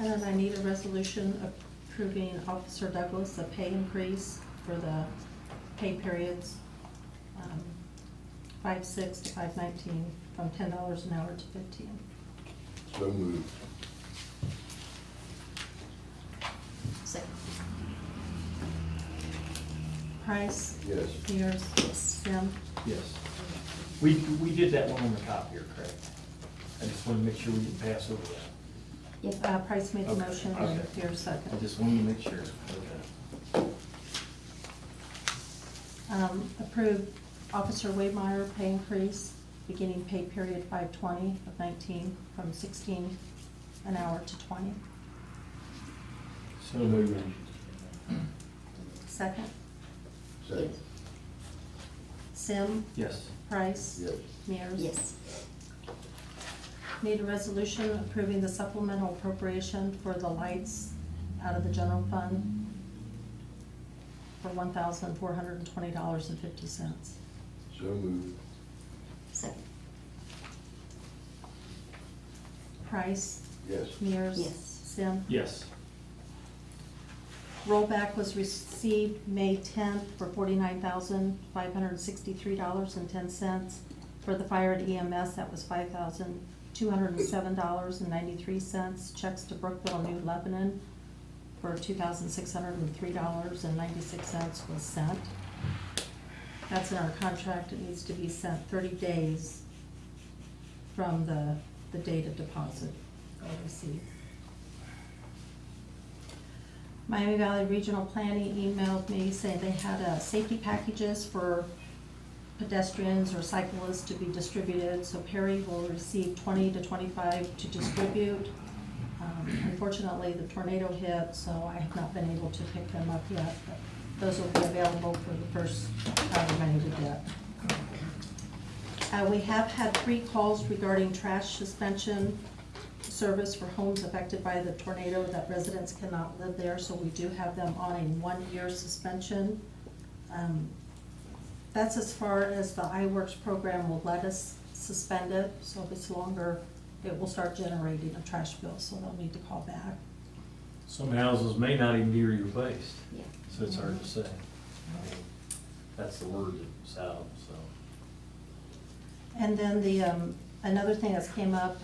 And then I need a resolution approving Officer Douglas a pay increase for the pay periods, um, five-six to five-nineteen, from ten dollars an hour to fifteen. So moved. Second. Price, Yes. Peters, Yes. Sim, Yes. We, we did that one on the top here, correct? I just want to make sure we didn't pass over that. Yes. uh, Price made the Okay, motion, and okay. Peters I second. just wanted to make sure. Okay. Um, approve Officer Waymeyer pay increase, beginning pay period five-twenty of nineteen, from sixteen an hour to twenty. So moved. Second, Second. Sim, Yes. Price. Yes. Mears. Yes. Need a resolution approving the supplemental appropriation for the lights out of the general fund for one thousand four hundred and twenty dollars and fifty cents. So moved. Second. Price, Yes. Mears. Yes. Sim. Yes. Rollback was received May tenth for forty-nine thousand five hundred and sixty-three dollars and ten cents. For the fire at EMS, that was five thousand two hundred and seven dollars and ninety-three cents. Checks to Brookville, New Lebanon for two thousand six hundred and three dollars and ninety-six cents was sent. That's in our contract, it needs to be sent thirty days from the, the date of deposit or receipt. Miami Valley Regional Planning emailed me saying they had, uh, safety packages for pedestrians or cyclists to be distributed, so Perry will receive twenty to twenty-five to distribute. Um, Unfortunately, the tornado hit, so I have not been able to pick them up yet, but those will be available for the first, however many we get. Uh, we have had three calls regarding trash suspension service for homes affected by the tornado that residents cannot live there, so we do have them on a one-year suspension. Um, That's as far as the iWorks program will let us suspend it, so if it's longer, it will start generating a trash bill, so they'll need to call back. Some houses may not even be replaced, Yeah. so it's hard to say. I mean, That's the word that's out, so. And then the, um, another thing that's came up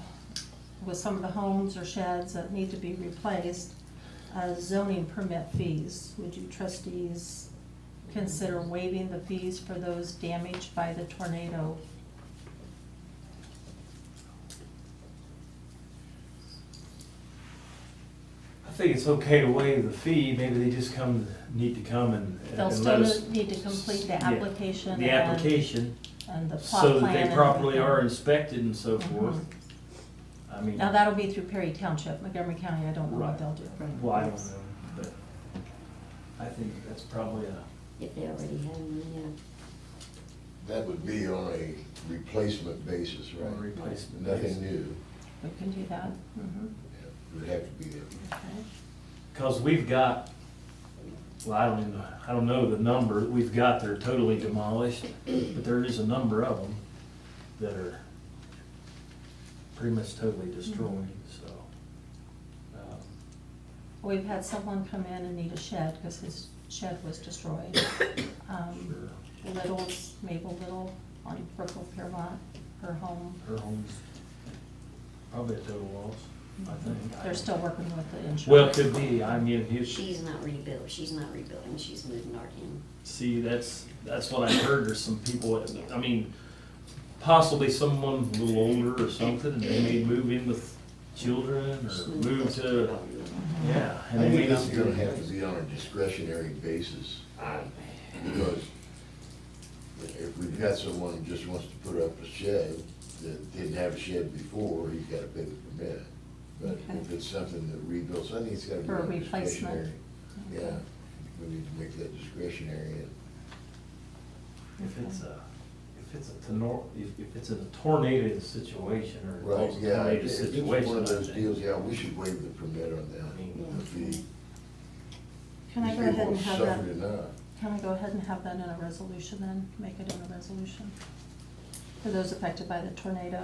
with some of the homes or sheds that need to be replaced, uh, zoning permit fees. Would you trustees consider waiving the fees for those damaged by the tornado? I think it's okay to waive the fee, maybe they just come, need to come and. and They'll let still us- need to complete the Yeah, application The and- application, And the plot plan. so that they and properly everything. Uh-huh. Mm-hmm. are inspected and so forth. I mean. Now, that'll be through Perry Township, Montgomery County, I don't know what Right. they'll do. Well, I don't know, but I think that's probably a, If they already have them, That would be on a replacement basis, right? On a replacement Nothing basis. new. We can do that. Mm-hmm. Mhm. It would have to be there. Okay. because we've got, well, I don't even, know- I don't know the number, we've got, they're totally demolished, but there is a number of them that are pretty much totally destroyed, Mm-hmm. so. um, We've had someone come in and need a shed because his shed was destroyed. Um, Little's, Mabel Little on Brookville Piermont, her home. Her home's probably a total loss, I think. Mm-hmm. They're still working with the insurance. Well, it could be, I mean, yeah. if you, She's not rebuilt, she's not rebuilding, she's moving art in. See, that's, that's what I heard, there's some people, I mean, possibly someone a little older or something, and they may move in with children, She's or moving move close Uh, to, development. Mm-hmm. yeah. I and they may think it's not gonna be- have to be on a discretionary basis, because if we've got someone who just wants to put up a shed, that didn't have a shed before, he's gotta pay the permit. But if Okay. it's something that rebuilds, I think it's gotta be For on a replacement. discretionary. Yeah, we need to make that discretionary, and If it's a, if it's a tenor, if, if it's a tornado situation, or a Right, yeah, tornado if it's one situation, I of those deals, think. yeah, we should waive the permit on that. Mm. If the- Can I these go ahead people and have that, Suffered enough. can I go ahead and have that in a resolution then? Make it in a resolution? For those affected by the tornado.